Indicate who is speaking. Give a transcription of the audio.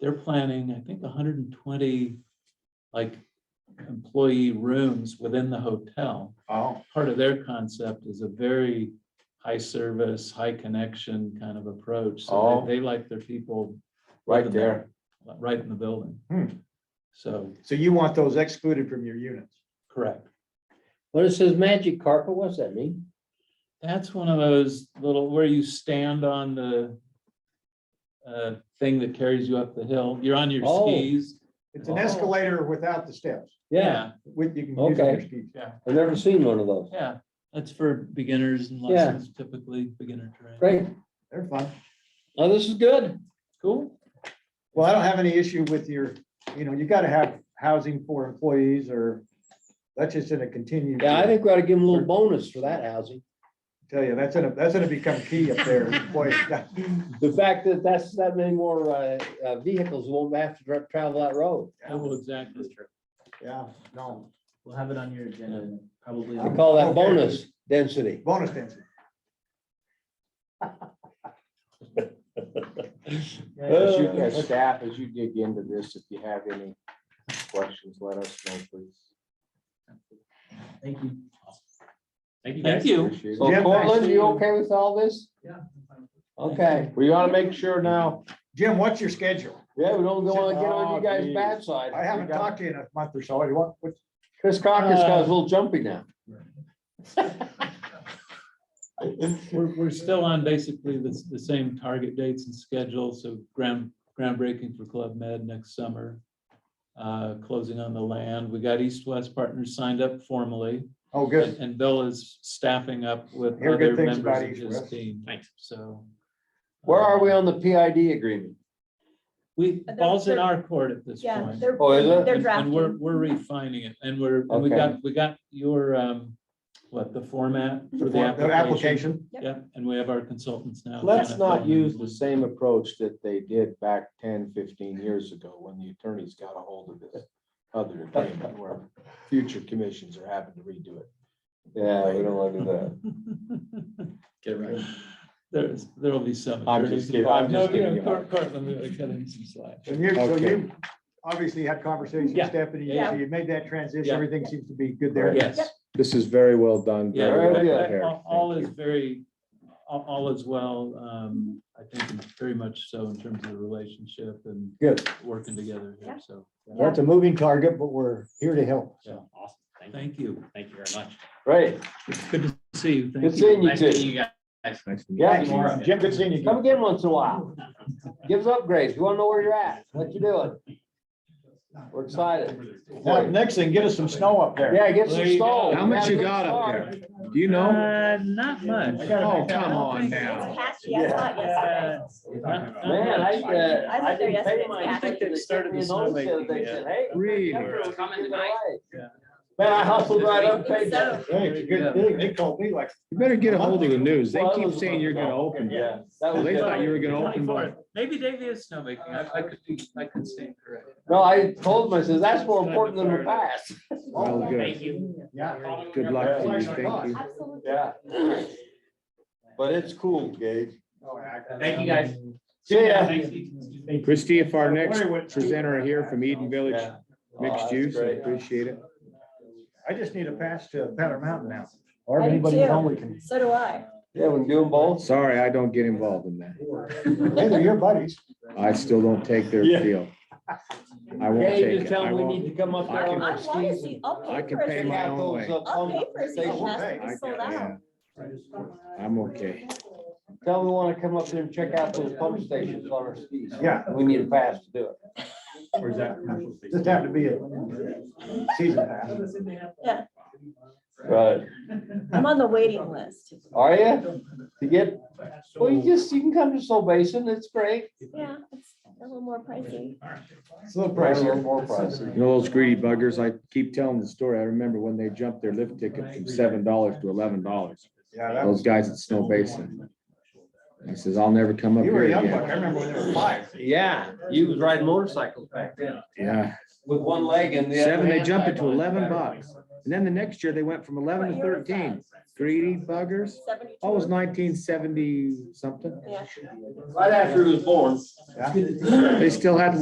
Speaker 1: they're planning, I think, hundred and twenty, like, employee rooms within the hotel.
Speaker 2: Oh,
Speaker 1: Part of their concept is a very high service, high connection kind of approach. So
Speaker 2: Oh.
Speaker 1: they- they like their people
Speaker 2: right
Speaker 1: living
Speaker 2: there.
Speaker 1: Right in the building.
Speaker 2: Hmm.
Speaker 1: So,
Speaker 2: So you want those excluded from your units?
Speaker 1: correct.
Speaker 3: What it says magic carpet, what's that mean?
Speaker 1: That's one of those little, where you stand on the uh, thing that carries you up the hill. You're on your
Speaker 3: Oh.
Speaker 1: skis.
Speaker 2: It's an
Speaker 3: Oh.
Speaker 2: escalator without the steps, with, you can use it on your
Speaker 3: Okay.
Speaker 2: skis.
Speaker 3: I've never seen one of those.
Speaker 1: Yeah, that's for beginners and
Speaker 3: Yeah.
Speaker 1: lessons, typically beginner terrain.
Speaker 3: Great.
Speaker 2: They're fun.
Speaker 3: Oh, this is good.
Speaker 1: Cool.
Speaker 2: Well, I don't have any issue with your, you know, you gotta have housing for employees or that's just gonna continue. to-
Speaker 3: Yeah, I think we ought to give them a little bonus for that housing.
Speaker 2: Tell you, that's gonna, that's gonna become key up there. employees.
Speaker 3: The fact that that's that many more uh, uh, vehicles won't have to dra- travel that road.
Speaker 1: I will exactly.
Speaker 2: Yeah, no,
Speaker 4: We'll have it on your agenda, probably.
Speaker 3: I call that
Speaker 2: Okay.
Speaker 3: bonus density.
Speaker 2: bonus density.
Speaker 5: As
Speaker 2: Oh,
Speaker 5: you,
Speaker 3: Uh,
Speaker 5: as staff, as you dig into this, if you have any questions, let us know, please.
Speaker 4: Thank you. Thank you
Speaker 1: Thank you.
Speaker 5: Appreciate it.
Speaker 3: So
Speaker 2: Jim, nice
Speaker 3: Cortland,
Speaker 2: seeing
Speaker 3: you
Speaker 2: you.
Speaker 3: okay with all this?
Speaker 4: Yeah.
Speaker 3: Okay,
Speaker 5: We gotta make sure now,
Speaker 2: Jim, what's your schedule?
Speaker 3: yeah, we don't want to get on
Speaker 5: Oh,
Speaker 3: you guys'
Speaker 5: geez.
Speaker 3: bad side.
Speaker 2: I haven't talked to you in a month or so. You want, what,
Speaker 3: Chris Cocker's got a little jumpy now.
Speaker 1: We're, we're still on basically the, s- the same target dates and schedule, so ground, groundbreaking for Club Med next summer. Uh, closing on the land. We got East West Partners signed up formally.
Speaker 2: oh, good.
Speaker 1: and- And Bill is staffing up with
Speaker 2: Hear good
Speaker 1: other members
Speaker 2: things about
Speaker 1: of
Speaker 2: East
Speaker 1: his
Speaker 2: West.
Speaker 1: team. Thanks. So.
Speaker 3: Where are we
Speaker 1: um,
Speaker 3: on the PID agreement?
Speaker 1: We,
Speaker 6: But
Speaker 1: ball's in
Speaker 6: they're-
Speaker 1: our court at this
Speaker 6: Yeah,
Speaker 1: point.
Speaker 6: they're.
Speaker 3: Oh, is it?
Speaker 6: They're
Speaker 1: And- And we're,
Speaker 6: drafting.
Speaker 1: we're refining it and we're, and we
Speaker 3: Okay.
Speaker 1: got, we got your, um, what, the format for the
Speaker 2: The
Speaker 1: application?
Speaker 2: application.
Speaker 6: Yep.
Speaker 1: Yeah, and we have our consultants now.
Speaker 5: let's
Speaker 1: kinda
Speaker 5: not
Speaker 1: filling in
Speaker 5: use the
Speaker 1: blanks.
Speaker 5: same approach that they did back 10, 15 years ago when the attorneys got a hold of this other agreement where future commissions are having to redo it.
Speaker 3: Yeah, we don't want to do that.
Speaker 4: Get right.
Speaker 1: There's, there'll be some.
Speaker 5: I'm just
Speaker 1: attorneys
Speaker 5: kidding. I'm
Speaker 1: involved.
Speaker 5: just
Speaker 1: No, you know,
Speaker 5: kidding.
Speaker 1: Cor- Cortland, we gotta cut in some slack.
Speaker 2: And you, so
Speaker 5: Okay.
Speaker 2: you obviously had conversations with
Speaker 1: Yeah.
Speaker 2: Stephanie,
Speaker 6: Yeah.
Speaker 2: so you made that transition,
Speaker 1: Yeah.
Speaker 2: everything seems to be good there.
Speaker 1: Yes,
Speaker 5: This is very well done.
Speaker 1: yeah,
Speaker 3: Very
Speaker 1: that-
Speaker 3: good.
Speaker 1: that- all- all is very, all, all is well, um, I think very much so in terms of the relationship and
Speaker 2: Good.
Speaker 1: working together
Speaker 6: Yeah.
Speaker 1: here, so.
Speaker 6: Well, it's
Speaker 2: a moving target, but we're here to help.
Speaker 1: so.
Speaker 4: Awesome. Thank you.
Speaker 1: Thank you.
Speaker 4: Thank you very much.
Speaker 3: Right,
Speaker 1: Good to see you. Thank
Speaker 3: good
Speaker 1: you.
Speaker 3: seeing you
Speaker 4: Nice meeting
Speaker 3: too.
Speaker 4: You guys.
Speaker 3: Yeah,
Speaker 4: Tomorrow.
Speaker 2: Jim, good seeing you.
Speaker 3: come again once in a while. Give us upgrades. We want to know where you're at, what you're doing. We're excited.
Speaker 2: Now, Next thing, get us some snow up there.
Speaker 3: Yeah, get some
Speaker 1: There you
Speaker 3: snow.
Speaker 1: go.
Speaker 5: How much you got up there? Do you know?
Speaker 1: Uh, not much.
Speaker 5: Oh, come on
Speaker 6: It's
Speaker 5: now.
Speaker 6: patchy. I saw it yesterday.
Speaker 3: Man, I, uh,
Speaker 6: I was
Speaker 3: I didn't
Speaker 6: there
Speaker 3: pay
Speaker 6: yesterday.
Speaker 3: my.
Speaker 6: I think
Speaker 3: ticket.
Speaker 1: they started the
Speaker 3: They sent me a notice
Speaker 1: snowmaking
Speaker 3: the other day,
Speaker 1: yet.
Speaker 3: said, "Hey,
Speaker 5: Really?
Speaker 3: temper was
Speaker 4: Coming
Speaker 3: keeping
Speaker 4: tonight."
Speaker 3: away."
Speaker 1: Yeah.
Speaker 3: Man, I hustled right up, paid
Speaker 6: So-
Speaker 3: that.
Speaker 2: Hey, it's a good thing. They called me like.
Speaker 5: You better get a hold of the news. They
Speaker 3: Well, that
Speaker 5: keep
Speaker 3: was-
Speaker 5: saying you're gonna open.
Speaker 3: Yeah, that was
Speaker 5: They
Speaker 3: good.
Speaker 5: thought you were gonna open by
Speaker 1: 24th. Maybe Davy is snowmaking. I, I could be, I could stand corrected.
Speaker 3: No, I told him, I says, that's more important than the past.
Speaker 5: Well, good.
Speaker 4: you.
Speaker 2: Yeah.
Speaker 5: Good luck to you. Thank you.
Speaker 6: Absolutely.
Speaker 3: Yeah. But it's cool, Gage.
Speaker 4: Thank you, guys.
Speaker 3: See ya.
Speaker 4: Thank you.
Speaker 5: Christie, if our next presenter here from Eden Village
Speaker 3: Yeah. Oh,
Speaker 5: Mixed
Speaker 3: that's
Speaker 5: Use, I
Speaker 3: great.
Speaker 5: appreciate it.
Speaker 2: I just need a pass to Powder Mountain now.
Speaker 6: I
Speaker 2: Or
Speaker 6: do anybody at too. home
Speaker 2: can.
Speaker 6: So do I.
Speaker 3: Yeah, we can do them both.
Speaker 5: Sorry, I don't get involved in that.
Speaker 2: Hey, they're your buddies.
Speaker 5: I still don't take their
Speaker 3: Yeah.
Speaker 5: deal. I won't
Speaker 3: Gage,
Speaker 5: take
Speaker 3: just
Speaker 5: it.
Speaker 3: tell
Speaker 5: I
Speaker 3: him we need
Speaker 5: won't.
Speaker 3: to come up
Speaker 5: I
Speaker 3: there on
Speaker 5: can-
Speaker 6: I
Speaker 3: our
Speaker 6: want to
Speaker 3: skis.
Speaker 6: see, I'll
Speaker 5: I
Speaker 6: pay
Speaker 5: can
Speaker 6: for
Speaker 5: pay
Speaker 6: it.
Speaker 5: my
Speaker 3: Got
Speaker 5: own
Speaker 3: those
Speaker 5: way.
Speaker 3: up
Speaker 6: I'll
Speaker 3: on
Speaker 6: pay for
Speaker 3: the
Speaker 6: it. so you
Speaker 3: station.
Speaker 6: have it.
Speaker 5: I-
Speaker 6: It's sold
Speaker 5: yeah,
Speaker 6: out.
Speaker 5: I'm okay.
Speaker 3: Tell them we want to come up there and check out those pump stations on our skis.
Speaker 2: Yeah.
Speaker 3: We need a pass to do it.
Speaker 4: Where's that?
Speaker 2: Just have to be a season pass.
Speaker 6: Yeah,
Speaker 3: Right.
Speaker 6: I'm on the waiting list.
Speaker 3: Are you? To get, well, you just, you can come to Soul Basin. It's great.
Speaker 6: Yeah, it's a little more pricey.
Speaker 2: It's a little
Speaker 3: Price a little
Speaker 2: pricey.
Speaker 3: more pricey.
Speaker 5: You know those greedy buggers? I keep telling the story. I remember when they jumped their lift ticket from seven dollars to eleven dollars.
Speaker 2: Yeah, that
Speaker 5: Those
Speaker 2: was,
Speaker 5: guys at Snow Basin. I says, I'll never come up
Speaker 2: you were
Speaker 5: here
Speaker 2: a young buck.
Speaker 5: again.
Speaker 2: I remember when they were five.
Speaker 3: Yeah, you was riding motorcycles back then
Speaker 5: Yeah,
Speaker 3: with one leg and the other.
Speaker 5: seven, they
Speaker 3: hand
Speaker 5: jumped it
Speaker 3: tied
Speaker 5: to
Speaker 3: on his
Speaker 5: eleven
Speaker 3: back.
Speaker 5: bucks. And then the next year, they went from eleven
Speaker 6: What
Speaker 5: to
Speaker 6: year was that?
Speaker 5: thirteen. Greedy buggers.
Speaker 6: Seventy-two.
Speaker 5: Oh, it was nineteen seventy something.
Speaker 6: Yeah.
Speaker 3: Right after he was born.
Speaker 2: Yeah.
Speaker 5: They still had